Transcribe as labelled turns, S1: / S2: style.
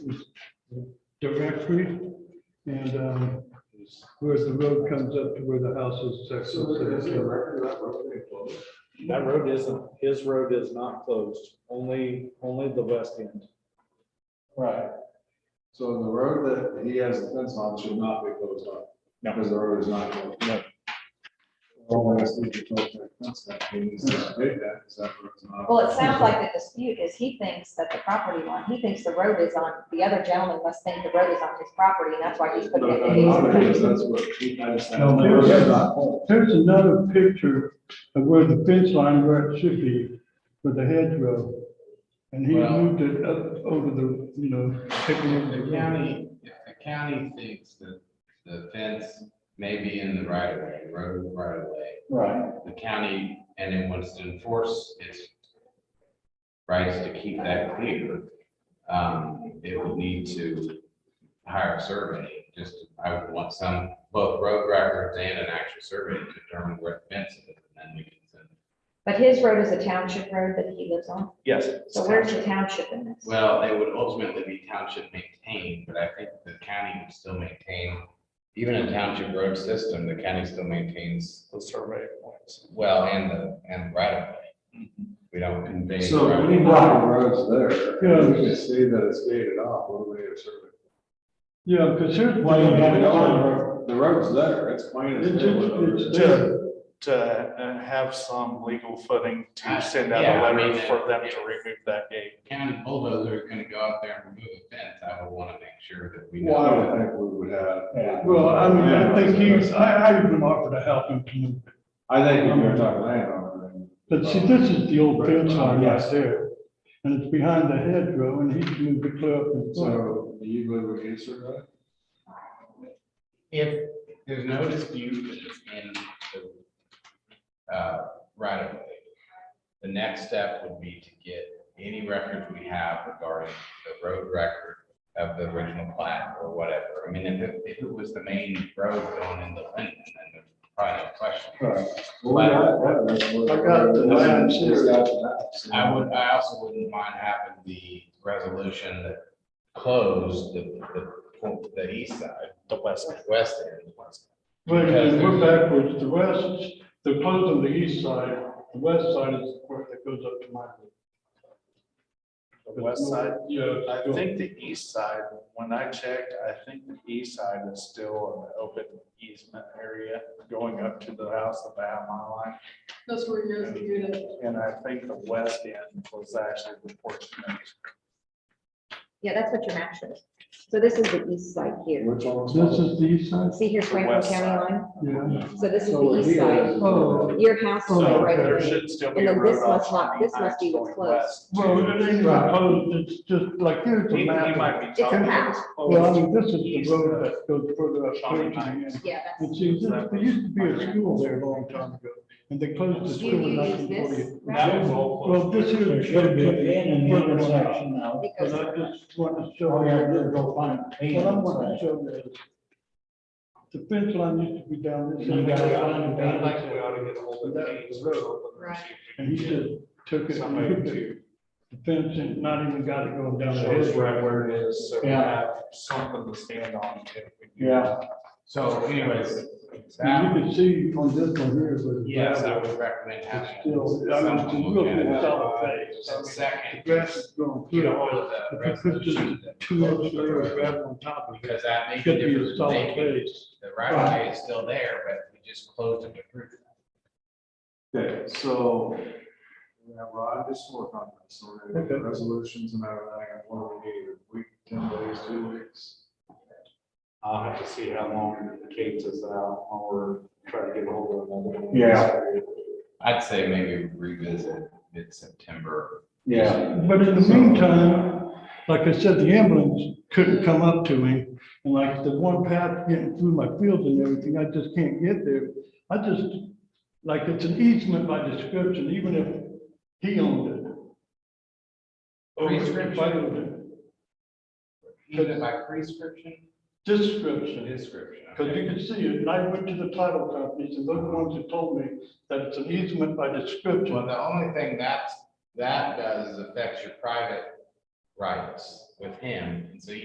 S1: Theodore Factory. And um, where the road comes up to where the house is. that's-
S2: That road isn't, his road is not closed, only, only the west end.
S3: Right. So the road that he has the fence on should not be closed off.
S2: No.
S3: Because the road is not. closed.
S2: No.
S3: All that's needed to close that fence, that means that they did that, is that road's not-
S4: Well, it sounds like the dispute is he thinks that the property line, he thinks the road is on, the other gentleman must think the road is on his property, and that's why he's
S3: But
S4: putting it in
S3: I'm
S4: his.
S5: uh,
S3: not because
S4: property.
S3: that's what he- I just-
S1: No, no, it's not. There's another picture of where the fence line where it should be for the hedgerow. And he
S6: Well-
S1: moved it up over the, you know, taking over
S6: The
S1: the county.
S6: county, if the county thinks that the fence may be in the right of way, road right of way,
S3: Right.
S6: the county, and it wants to enforce its rights to keep that clear, um, it would need to hire a survey, just, I would want some, both road records and an actual survey to determine where the fence is, and then we can send.
S4: But his road is a township road that he lives on,
S2: Yes.
S4: so where's the township in this?
S6: Well, it would ultimately be township maintained, but I think the county would still maintain, even a township road system, the county still maintains
S2: The survey points.
S6: Well, and the, and right of way. We don't convey.
S3: So we know the road's there. We just see that it's gated off, what do we have service?
S1: Yeah, because here's why
S3: Well,
S1: you got it on.
S3: The road's there, it's plain as.
S1: It's,
S3: day.
S1: it's, it's there.
S5: to uh, have some legal footing
S6: Uh,
S5: to send out
S6: yeah,
S5: a
S6: I mean,
S5: letter for them
S6: it-
S5: to remove that gate.
S6: County bulldozer is gonna go out there and remove a fence, I would wanna make sure that we
S3: Well, I
S6: know.
S3: don't think we would have.
S1: Well, I mean, I think he's, I, I even offered to help him to move
S3: I think if you're talking landowner. then-
S1: But see, this is the old fence line right there, and it's behind the hedgerow, and he's moved it clear up in front.
S3: So do you believe we answered that?
S6: If there's no dispute that it's in the, uh, right of way, the next step would be to get any records we have regarding the road record of the original plat or whatever. I mean, if it, if it was the main road going into Linden, then there's probably no question.
S3: Well, that- that was-
S1: I got the maps here.
S3: Just got the maps.
S6: I would, I also wouldn't mind having the resolution that closed the, the, point- the east side,
S5: The west. end.
S6: west end.
S1: But then we're backwards, the west, they're closed on the east side, the west side is where it goes up to my.
S5: The west side.
S1: Yeah.
S5: I think the east side, when I checked, I think the east side is still an open easement area going up to the house of Bow Mile
S7: That's where you guys do it.
S5: Line. And I think the west end was actually the porch. that was-
S4: Yeah, that's what your map shows. So this is the east side here.
S3: Which one was?
S1: This is the east side,
S4: See here's
S5: The
S4: Franklin
S5: west
S4: County
S5: side.
S4: line,
S1: yeah.
S4: so this is
S3: So
S4: the east
S3: here
S4: side,
S3: is-
S1: Oh.
S4: your house is
S5: So
S4: right
S5: there
S4: away.
S5: should still
S4: And
S5: be a
S4: then this
S5: road
S4: must not-
S5: option.
S4: this must be what's closed.
S1: Well, it ain't even closed, it's just like here's
S5: He
S1: the
S5: he
S1: map.
S5: might be
S4: It's a
S5: talking.
S4: map.
S5: what's closed.
S1: Well, I mean, this is the road that goes further up. here to the end.
S4: Yeah,
S1: And
S4: that's,
S1: see, this- there used to be a school there a long time ago, and they closed the
S4: Do
S1: school in
S4: you use
S1: nineteen forty.
S4: this?
S5: That was all closed.
S1: Well, this is.
S8: There should be an N in the intersection now.
S4: it
S1: But
S4: goes,
S1: I just want to show.
S8: Oh, yeah, we'll go find an
S1: What I want to
S8: intersection.
S1: show is the fence line used to be down this.
S8: You gotta find an
S1: end.
S8: intersection.
S7: Right.
S1: And he just took it and
S5: Somebody
S1: moved it,
S5: to
S1: the fence and not even got it going down. the
S5: show us
S1: hill.
S5: right where it is, so we
S8: Yeah.
S5: have something to stand on. if we do.
S8: Yeah.
S6: So anyways,
S1: And you
S6: that,
S1: can see on this one here, but.
S6: yes, I would recommend having.
S1: It's still, I mean, it's a real good solid base. I
S6: And
S1: mean, The
S6: Second,
S1: grass is growing.
S6: get a hold of the
S1: If you put just
S6: resolution. that
S1: two inch
S6: closed the
S1: layer of
S6: road,
S1: gravel on top of it,
S6: Because that
S1: it
S6: makes a
S1: should be a
S6: difference,
S1: solid
S6: They-
S1: base.
S6: the right of way is still there, but we just closed it to prove. it.
S3: Okay, so. Yeah, well, I just work on this, so we're gonna get the resolutions and everything, and what we need, a week, ten days, two weeks.
S5: I'll have to see how long Kate's is out or try to get a hold of them.
S8: Yeah.
S6: I'd say maybe revisit mid-September.
S1: But in the meantime, like I said, the ambulance couldn't come up to me, and like the one path getting through my fields and everything, I just can't get there. I just, like, it's an easement by description, even if he owned it. Or if I owned it,
S6: Either by prescription
S1: description,
S6: description.
S1: because you can see it, and I went to the title companies, and they're the ones that told me that it's an easement by
S6: Well,
S1: description.
S6: the only thing that, that does is affects your private rights with him, and so you